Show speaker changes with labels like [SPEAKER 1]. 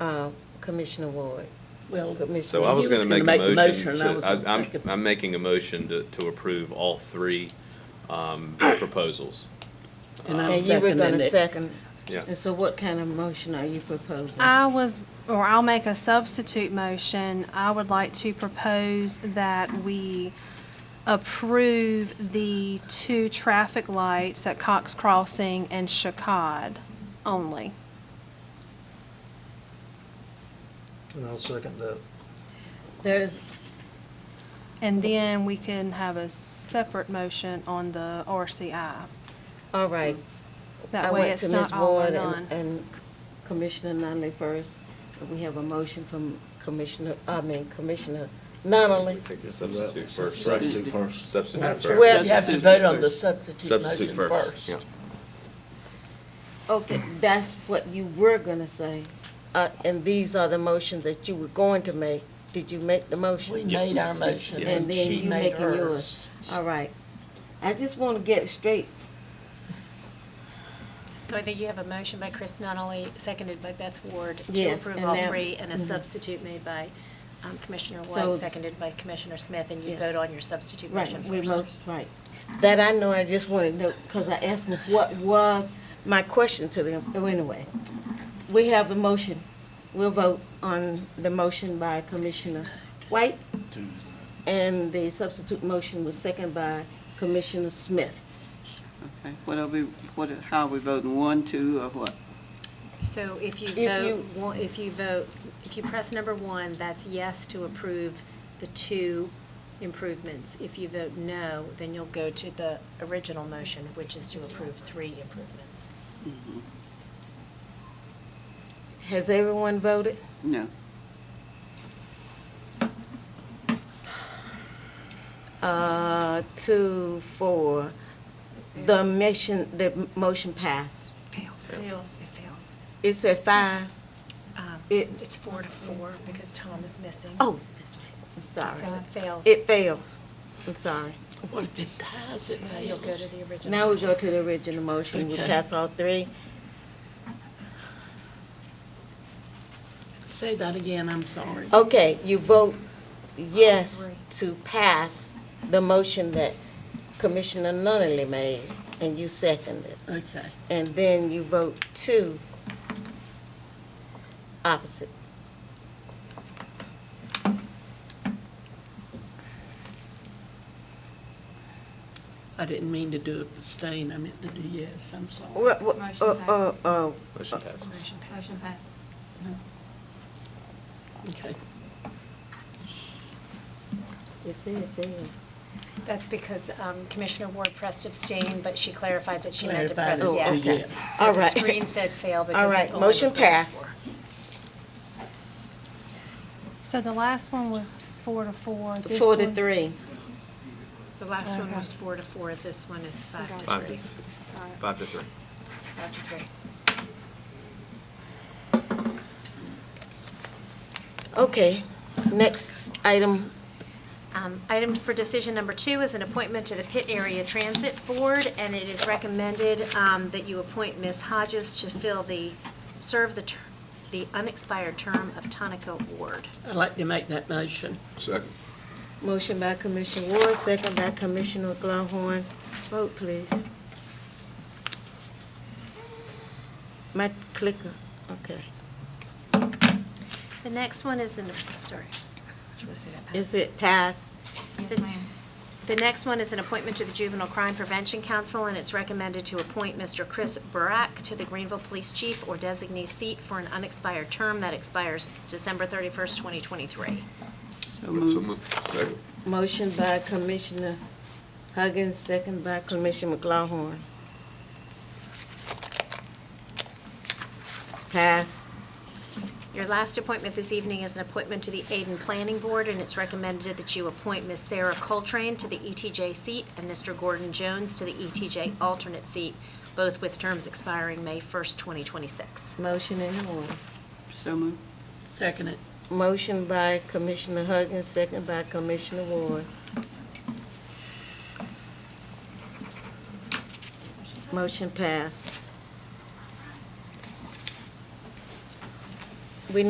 [SPEAKER 1] uh, Commissioner Ward.
[SPEAKER 2] Well,
[SPEAKER 1] Commissioner-
[SPEAKER 3] So I was
[SPEAKER 2] You was
[SPEAKER 3] gonna make
[SPEAKER 2] gonna
[SPEAKER 3] a
[SPEAKER 2] make the
[SPEAKER 3] motion
[SPEAKER 2] motion, and I was
[SPEAKER 3] to,
[SPEAKER 2] gonna
[SPEAKER 3] I- I'm,
[SPEAKER 2] second.
[SPEAKER 3] I'm making a motion to, to approve all three, um, proposals.
[SPEAKER 2] and I'm
[SPEAKER 1] And you were
[SPEAKER 2] seconding
[SPEAKER 1] gonna
[SPEAKER 2] it.
[SPEAKER 1] second.
[SPEAKER 3] Yeah.
[SPEAKER 1] And so what kind of motion are you proposing?
[SPEAKER 4] I was, or I'll make a substitute motion. I would like to propose that we approve the two traffic lights at Cox Crossing and Chicad only.
[SPEAKER 5] And I'll second that.
[SPEAKER 1] There's,
[SPEAKER 4] And then we can have a separate motion on the RCI.
[SPEAKER 1] all right. I
[SPEAKER 4] That way
[SPEAKER 1] went
[SPEAKER 4] it's
[SPEAKER 1] to
[SPEAKER 4] not
[SPEAKER 1] Ms.
[SPEAKER 4] all or
[SPEAKER 1] Ward and-
[SPEAKER 4] none.
[SPEAKER 1] And Commissioner Nunley first. We have a motion from Commissioner, I mean Commissioner Nunley.
[SPEAKER 3] Take the substitute first, right?
[SPEAKER 5] Substitute first.
[SPEAKER 3] Substitute first.
[SPEAKER 1] Well,
[SPEAKER 2] You have to vote on the substitute
[SPEAKER 3] Substitute
[SPEAKER 2] motion
[SPEAKER 3] first,
[SPEAKER 2] first.
[SPEAKER 3] yeah.
[SPEAKER 1] Okay, that's what you were gonna say. Uh, and these are the motions that you were going to make. Did you make the motion?
[SPEAKER 2] We
[SPEAKER 3] Yes.
[SPEAKER 2] made our motion,
[SPEAKER 3] Yes.
[SPEAKER 2] and
[SPEAKER 1] And then
[SPEAKER 2] she
[SPEAKER 1] you
[SPEAKER 2] made
[SPEAKER 1] making
[SPEAKER 2] hers.
[SPEAKER 1] yours. All right. I just want to get it straight.
[SPEAKER 6] So I think you have a motion by Chris Nunley, seconded by Beth Ward to
[SPEAKER 1] Yes,
[SPEAKER 6] approve
[SPEAKER 1] and
[SPEAKER 6] all
[SPEAKER 1] now-
[SPEAKER 6] three, and a
[SPEAKER 1] mhm.
[SPEAKER 6] substitute made by um, Commissioner
[SPEAKER 1] So
[SPEAKER 6] White,
[SPEAKER 1] it's-
[SPEAKER 6] seconded by Commissioner Smith, and you
[SPEAKER 1] Yes.
[SPEAKER 6] vote on your substitute
[SPEAKER 1] Right,
[SPEAKER 6] motion
[SPEAKER 1] we
[SPEAKER 6] first.
[SPEAKER 1] both, right. That I know, I just want to know, because I asked Ms. what was my question to them. Oh, Anyway, we have a motion. We'll vote on the motion by Commissioner White, and the substitute motion was second by Commissioner Smith.
[SPEAKER 7] Okay, what are we, what, are- how are we voting, one, two, or what?
[SPEAKER 6] So if you
[SPEAKER 1] If
[SPEAKER 6] vote,
[SPEAKER 1] you-
[SPEAKER 6] one- if you vote, if you press number one, that's yes to approve the two improvements. If you vote no, then you'll go to the original motion, which is to approve three improvements.
[SPEAKER 1] Has everyone voted?
[SPEAKER 7] No,
[SPEAKER 1] Uh, two, four. The mission, the motion passed.
[SPEAKER 6] Fails. It fails.
[SPEAKER 1] It said five.
[SPEAKER 6] Um,
[SPEAKER 1] It-
[SPEAKER 6] It's four to four because Tom is missing.
[SPEAKER 1] Oh, that's right. I'm
[SPEAKER 6] So
[SPEAKER 1] sorry.
[SPEAKER 6] it fails.
[SPEAKER 1] It fails. I'm sorry.
[SPEAKER 2] What if it ties it,
[SPEAKER 6] Uh, You'll go to the original.
[SPEAKER 1] Now we
[SPEAKER 6] motion.
[SPEAKER 1] go to the original motion. We
[SPEAKER 2] Okay.
[SPEAKER 1] pass all three.
[SPEAKER 2] Say that again, I'm sorry.
[SPEAKER 6] Oh.
[SPEAKER 1] Okay, you vote yes to pass the motion that Commissioner Nunley made, and you second it.
[SPEAKER 2] Okay,
[SPEAKER 1] And then you vote two opposite.
[SPEAKER 2] I didn't mean to do abstain, I meant to do yes, I'm sorry.
[SPEAKER 1] What, what, uh, uh, uh,
[SPEAKER 3] Motion passes.
[SPEAKER 6] Motion passes.
[SPEAKER 2] Okay,
[SPEAKER 1] you see, it fails.
[SPEAKER 6] That's because um, Commissioner Ward pressed abstain, but she clarified that she meant to press
[SPEAKER 2] Clarified it
[SPEAKER 6] yes.
[SPEAKER 2] to yes.
[SPEAKER 6] So
[SPEAKER 1] All
[SPEAKER 6] the
[SPEAKER 1] right.
[SPEAKER 6] screen said fail because.
[SPEAKER 1] All
[SPEAKER 6] it
[SPEAKER 1] right,
[SPEAKER 6] only
[SPEAKER 1] motion
[SPEAKER 6] went to
[SPEAKER 1] passed.
[SPEAKER 6] four.
[SPEAKER 4] So the last one was four to four. This
[SPEAKER 1] Four to
[SPEAKER 4] one-
[SPEAKER 1] three.
[SPEAKER 6] The last one was four to four, this one is five to
[SPEAKER 3] Five to
[SPEAKER 6] three.
[SPEAKER 3] two, five to three.
[SPEAKER 6] Five to three.
[SPEAKER 1] Okay, next item,
[SPEAKER 6] Um, Item for decision number two is an appointment to the Pitt Area Transit Board, and it is recommended um, that you appoint Ms. Hodges to fill the, serve the, ter- the unexpired term of Tonico Ward.
[SPEAKER 2] I'd like to make that motion.
[SPEAKER 8] Second.
[SPEAKER 1] motion by Commissioner Ward, second by Commissioner Glohorn. Vote, please. My clicker, okay.
[SPEAKER 6] The next one is an, sorry. Do you wanna say that?
[SPEAKER 1] Is it passed?
[SPEAKER 6] The- The next one is an appointment to the Juvenile Crime Prevention Council, and it's recommended to appoint Mr. Chris Barak to the Greenville Police Chief or designee seat for an unexpired term that expires December 31st, 2023.
[SPEAKER 7] so
[SPEAKER 8] So
[SPEAKER 7] move.
[SPEAKER 8] moved. Second.
[SPEAKER 1] Motion by Commissioner Huggins, second by Commissioner McGlohorn. Pass.
[SPEAKER 6] Your last appointment this evening is an appointment to the Aiden Planning Board, and it's recommended that you appoint Ms. Sarah Coltrane to the ETJ seat and Mr. Gordon Jones to the ETJ alternate seat, both with terms expiring May 1st, 2026.
[SPEAKER 1] Motion in order.
[SPEAKER 7] So move.
[SPEAKER 2] Second it.
[SPEAKER 1] Motion by Commissioner Huggins, second by Commissioner Ward. Motion passed.